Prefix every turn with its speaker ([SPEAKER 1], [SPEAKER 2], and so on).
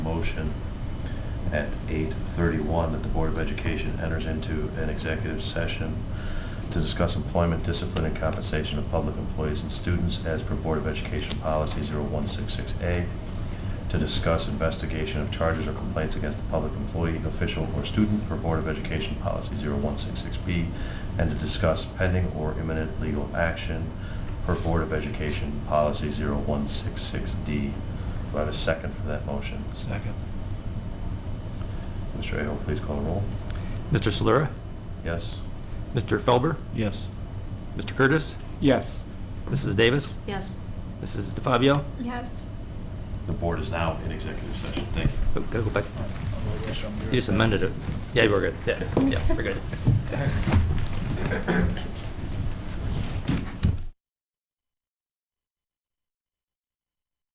[SPEAKER 1] motion at eight thirty-one that the Board of Education enters into an executive session to discuss employment, discipline, and compensation of public employees and students as per Board of Education Policy 0166A, to discuss investigation of charges or complaints against a public employee, official, or student per Board of Education Policy 0166B, and to discuss pending or imminent legal action per Board of Education Policy 0166D. Do I have a second for that motion?
[SPEAKER 2] Second.
[SPEAKER 1] Mr. Aho, please call the roll.
[SPEAKER 3] Mr. Solera?
[SPEAKER 1] Yes?
[SPEAKER 3] Mr. Felber?
[SPEAKER 2] Yes.
[SPEAKER 3] Mr. Curtis?
[SPEAKER 4] Yes.
[SPEAKER 3] Mrs. Davis?
[SPEAKER 5] Yes.
[SPEAKER 3] Mrs. DeFabio?
[SPEAKER 5] Yes.
[SPEAKER 1] The board is now in executive session. Thank you.
[SPEAKER 3] Oh, Gotta go back. You just amended it. Yeah, we're good. Yeah, yeah, we're good.